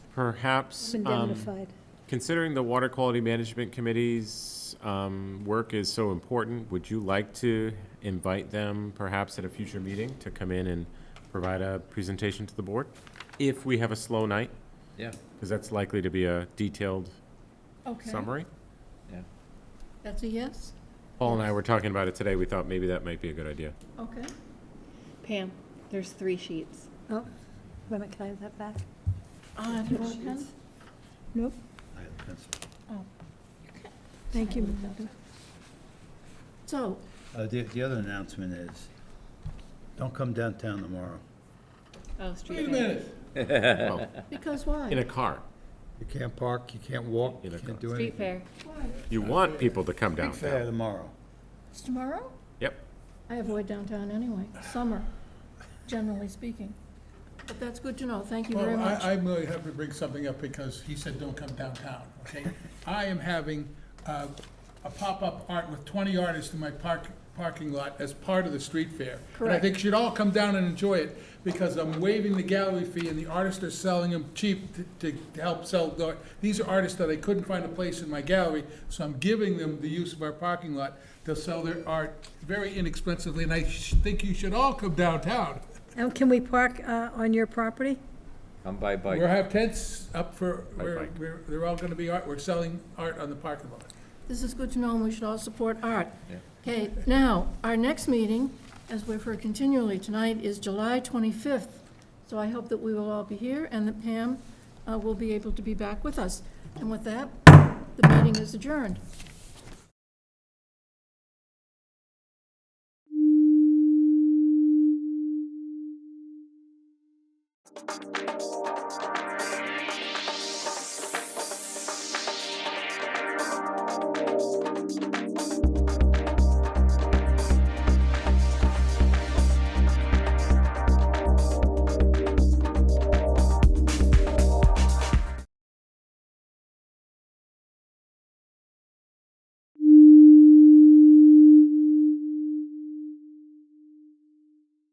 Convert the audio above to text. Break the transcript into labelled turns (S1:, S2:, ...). S1: Perhaps, um,
S2: Indemnified.
S1: considering the Water Quality Management Committee's um, work is so important, would you like to invite them perhaps at a future meeting to come in and provide a presentation to the board? If we have a slow night,
S3: Yeah,
S1: because that's likely to be a detailed
S4: Okay,
S1: summary.
S3: yeah.
S4: that's a yes?
S1: Paul and I were talking about it today. We thought maybe that might be a good idea.
S4: Okay.
S5: Pam, there's three sheets.
S2: Oh, wait a minute, can I have that back?
S4: Uh, do you want a pen?
S2: Nope,
S3: I have a pencil.
S2: thank you, Madam.
S4: So,
S3: Uh, the, the other announcement is, don't come downtown tomorrow.
S5: Oh, street.
S6: Wait a
S5: fair.
S6: minute,
S1: Well,
S4: because
S1: in a
S4: why?
S1: car.
S3: You can't park, you can't walk, you
S1: Either
S3: can't
S1: car.
S3: do
S5: Street fair.
S3: anything.
S4: Why?
S1: You want people to come
S3: Big fair
S1: downtown.
S3: tomorrow.
S4: It's tomorrow?
S1: Yep.
S4: I avoid downtown anyway, summer, generally speaking. But that's good to know, thank you very
S6: well,
S4: much.
S6: I, I'm really happy to bring something up because he said don't come downtown, okay? I am having, uh, a pop-up art with twenty artists in my park, parking lot as part of the street fair. And I
S4: Correct.
S6: think you should all come down and enjoy it because I'm waiving the gallery fee and the artists are selling them cheap to- to, to help sell. the- These are artists that I couldn't find a place in my gallery, so I'm giving them the use of our parking lot to sell their art very inexpensively, and I sh- think you should all come downtown.
S2: And can we park uh, on your property?
S7: Come by
S6: We'll
S7: bike.
S6: have tents up for,
S1: By
S6: we're,
S1: bike.
S6: we're, they're all gonna be art, we're selling art on the parking lot.
S4: This is good to know, and we should all support art.
S7: Yeah.
S4: Okay, now, our next meeting, as we've heard continually tonight, is July 25th. So I hope that we will all be here and that Pam uh, will be able to be back with us. And with that, the meeting is adjourned.